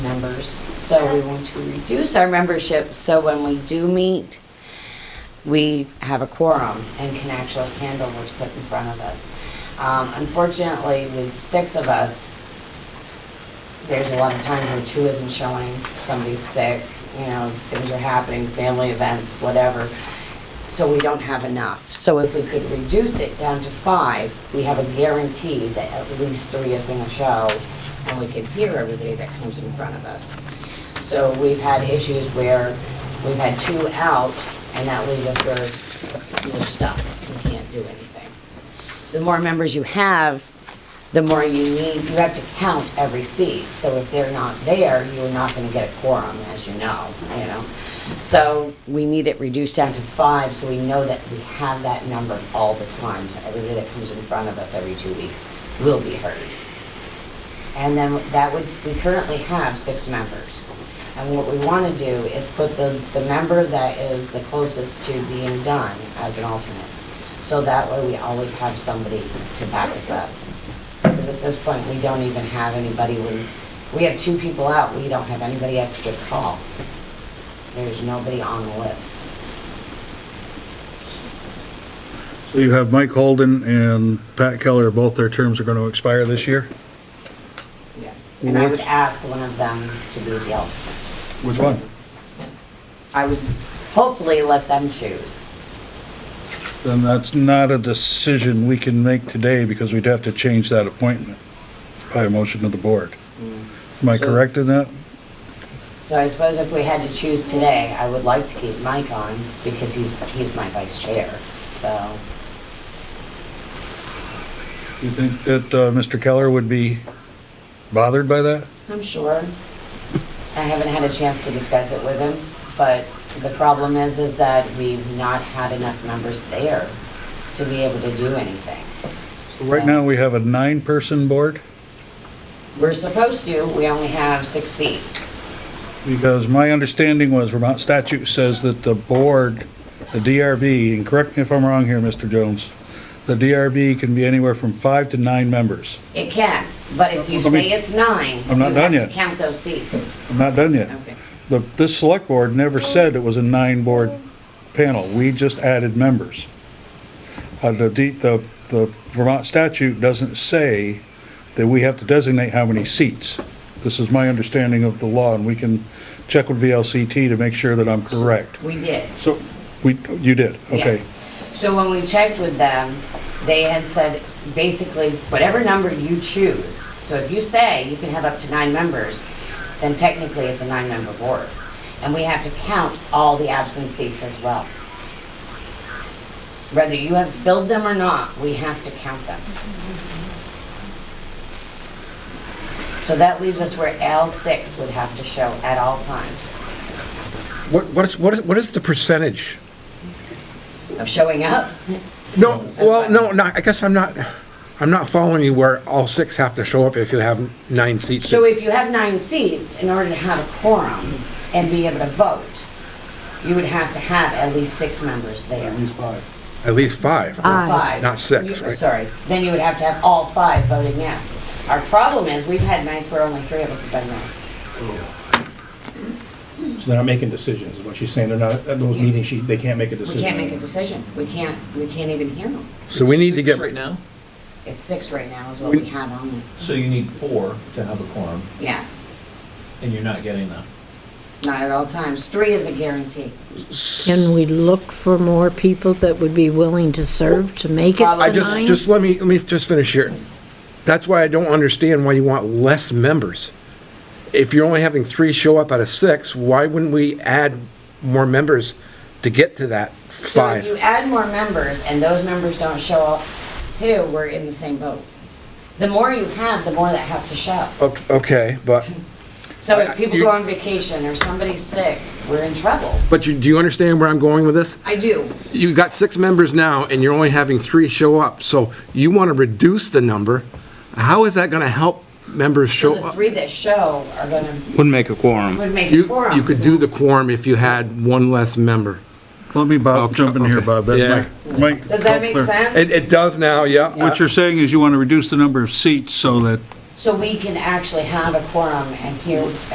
members. So we want to reduce our membership so when we do meet, we have a quorum and can actually handle what's put in front of us. Um, unfortunately, with six of us, there's a lot of times where two isn't showing, somebody's sick, you know, things are happening, family events, whatever. So we don't have enough. So if we could reduce it down to five, we have a guarantee that at least three is gonna show, and we can hear everybody that comes in front of us. So we've had issues where we've had two out, and that leaves us where we're stuck, we can't do anything. The more members you have, the more you need, you have to count every seat. So if they're not there, you're not gonna get a quorum, as you know, you know? So we need it reduced down to five, so we know that we have that number all the time. So everybody that comes in front of us every two weeks will be heard. And then that would, we currently have six members. And what we want to do is put the, the member that is the closest to being done as an alternate. So that way we always have somebody to back us up. Because at this point, we don't even have anybody, we, we have two people out, we don't have anybody extra to call. There's nobody on the list. So you have Mike Holden and Pat Keller, both their terms are gonna expire this year? And I would What- ask one of them to be the alternate. Which one? I would hopefully let them choose. Then that's not a decision we can make today because we'd have to change that appointment by a motion of the board. Am I So- correct in that? So I suppose if we had to choose today, I would like to keep Mike on because he's, he's my vice chair, so. Do you think that, uh, Mr. Keller would be bothered by that? I'm sure. I haven't had a chance to discuss it with him, but the problem is, is that we've not had enough members there to be able to do anything. Right So- now, we have a nine-person board We're supposed to, we only have six seats. because my understanding was Vermont statute says that the board, the DRB, and correct me if I'm wrong here, Mr. Jones, the DRB can be anywhere from five to nine members. It can, but if you Let me- say it's nine, I'm you not have done to yet. count those seats. I'm not done yet. Okay. The, this select board never said it was a nine-board panel. We just added members. Uh, the, D- the, the Vermont statute doesn't say that we have to designate how many seats. This is my understanding of the law, and we can check with VLCT to make sure that I'm correct. We did. So, we, you did, okay. Yes. So when we checked with them, they had said, basically, whatever number you choose, so if you say you can have up to nine members, then technically it's a nine-member board. And we have to count all the absent seats as well. Whether you have filled them or not, we have to count them. So that leaves us where L six would have to show at all times What, what is, what is, what is the percentage? of showing up. No, well, no, no, I guess I'm not, I'm not following you where all six have to show up if you have nine seats. So if you have nine seats, in order to have a quorum and be able to vote, you would have to have at least six members there. At least five. Or Five. Not six, You- right? Sorry, then you would have to have all five voting yes. Our problem is, we've had nights where only three of us have been there. So they're not making decisions, is what she's saying. They're not, at those meetings, she, they can't make a We decision. can't make a decision. We can't, we can't even hear them. So we need to Six get, Right now? It's six right now is what we have on there. So you need four to have a quorum, Yeah, and you're not getting that. not at all times. Three is a guarantee. Can we look for more people that would be willing to serve to make it I the just, nine? just let me, let me just finish here. That's why I don't understand why you want less members. If you're only having three show up out of six, why wouldn't we add more members to get to that So if you five? add more members and those members don't show up too, we're in the same boat. The more you have, the more that has to show. Ok- Okay, but, So I- if people Uh, you- go on vacation or somebody's sick, we're in trouble. but you, do you understand where I'm going with this? I do. you got six members now, and you're only having three show up, so you want to reduce the number. How is that going to help members So show the up? three that show are gonna, Wouldn't make a quorum. would make a You, quorum. you could do the quorum if you had one less member. Let me, Bob, Oh, jump in here, okay. Bob. That Yeah. might- might Does that help make clear- It, sense? it does now, yeah. What you're saying is you want to reduce the number of seats so that So we can actually have a quorum and hear